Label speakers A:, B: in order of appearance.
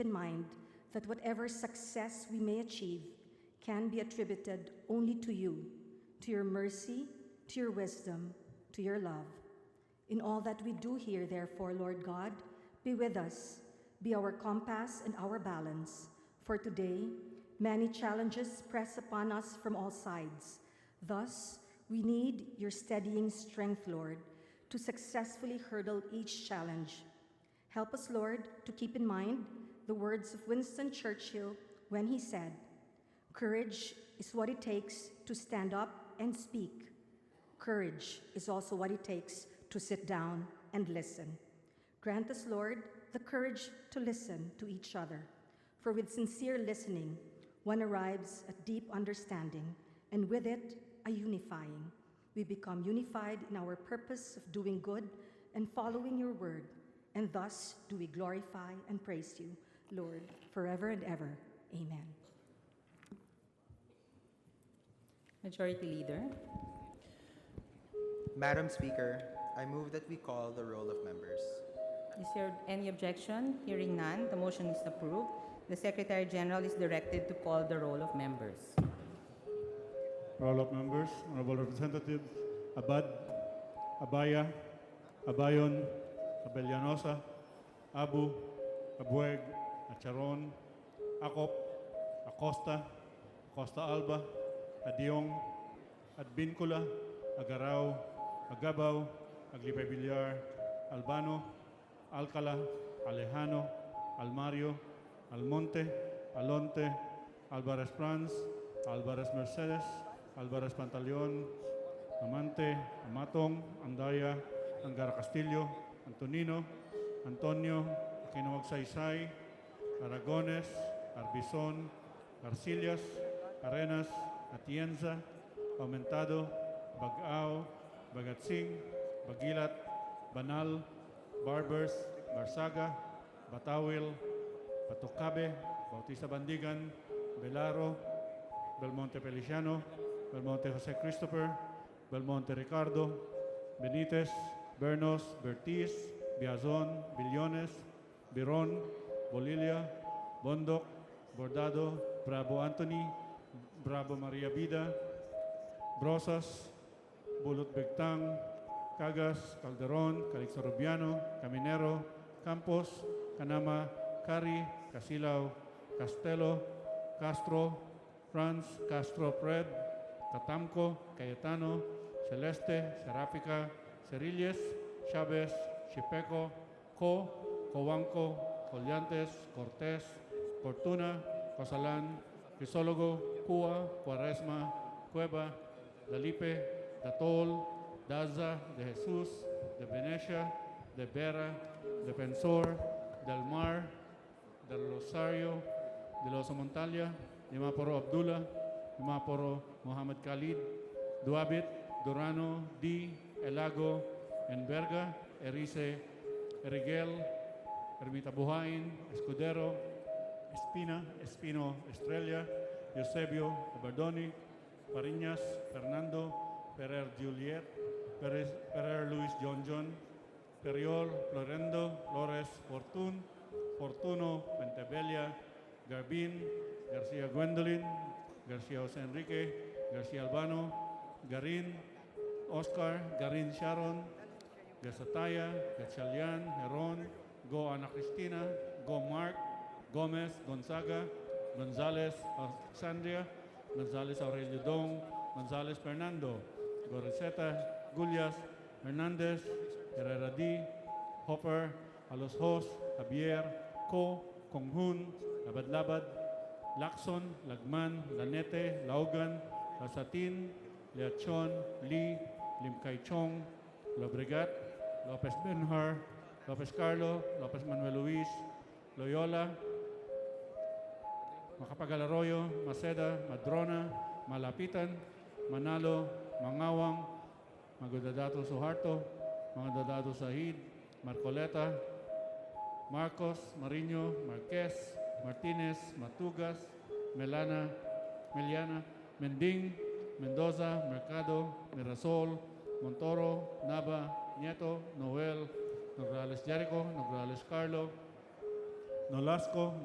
A: in mind that whatever success we may achieve can be attributed only to you, to your mercy, to your wisdom, to your love. In all that we do here, therefore, Lord God, be with us, be our compass and our balance. For today, many challenges press upon us from all sides. Thus, we need your steadying strength, Lord, to successfully hurdle each challenge. Help us, Lord, to keep in mind the words of Winston Churchill when he said, Courage is what it takes to stand up and speak. Courage is also what it takes to sit down and listen. Grant us, Lord, the courage to listen to each other. For with sincere listening, one arrives at deep understanding, and with it, a unifying. We become unified in our purpose of doing good and following your word, and thus do we glorify and praise you, Lord, forever and ever. Amen.
B: Majority Leader,
C: Madam Speaker, I move that we call the roll of members.
B: is there any objection? Hearing none, the motion is approved. The Secretary General is directed to call the roll of members.
D: Roll of members, honorable representatives, Abad, Abaya, Abayon, Abellanosa, Abu, Abueg, Acharon, Acop, Acosta, Acosta Alba, Adiong, Adbincula, Agarao, Agabaw, Aglipay Villar, Albano, Alcala, Alejano, Almario, Almonte, Alonte, Alvarez Franz, Alvarez Mercedes, Alvarez Pantaleon, Amante, Amatong, Andaya, Angara Castillo, Antonino, Antonio, Aquino Magsaysay, Aragones, Arbizon, Arcillas, Arenas, Atienza, Aumentado, Bagao, Bagatsing, Bagilat, Banal, Barbers, Barsaga, Batawil, Patucabe, Bautista Bandigan, Belaro, Belmonte Peliciano, Belmonte Jose Christopher, Belmonte Ricardo, Benitez, Bernos, Bertiz, Biazon, Billones, Biron, Bolilia, Bondoc, Bordado, Bravo Anthony, Bravo Maria Vida, Brosas, Bulot Bigtang, Cagas, Calderon, Calixto Rubiano, Caminero, Campos, Canama, Cari, Casilao, Castelo, Castro, Franz, Castro Pred, Tatamco, Cayetano, Celeste, Seráfica, Cerilles, Chávez, Chipeco, Co, Cobanco, Collantes, Cortés, Fortuna, Cosalán, Crisólogo, Cua, Cuaresma, Cueva, Dalipe, Datol, Daza, de Jesús, de Venecia, de Vera, de Pensor, del Mar, del Rosario, de los Montalia, de Maporo Abdullah, de Maporo Mohamed Khalid, Duabit, Durano, Di, Elago, Enverga, Erice, Erigel, Ermita Buhain, Escudero, Espina, Espino, Estrella, Eusebio, Abardoni, Pariñas, Fernando, Ferrer Juliet, Perez, Ferrer Luis John John, Periol, Florendo, Flores, Fortun, Fortuno, Pentebella, Garbin, García Gwendolyn, García José Enrique, García Albano, Garin, Oscar, Garin Sharon, Gasataya, Gachalian, Heron, Go Ana Cristina, Go Mark, Gomez, Gonzaga, Gonzalez, Alexandria, Gonzalez Aurelio Dong, Gonzalez Fernando, Goriseta, Gulias, Hernandez, Herrera D, Hopper, Alos Hos, Javier, Co, Konghun, Labad-Labad, Lacson, Lagman, Lanete, Laugan, Lasatin, Leachon, Lee, Lim Kai Chong, Lobregat, Lopez Benhar, Lopez Carlo, Lopez Manuel Luis, Loyola, Macapagal Arroyo, Maceda, Madrona, Malapitan, Manalo, Mangawang, Magdadato Suharto, Magdadato Sahid, Marcoleta, Marcos, Marino, Marquez, Martinez, Matugas, Melana, Meliana, Mending, Mendoza, Mercado, Mirasol, Montoro, Nava, Nieto, Noel, Nograles Jericho, Nograles Carlo, Nolasco,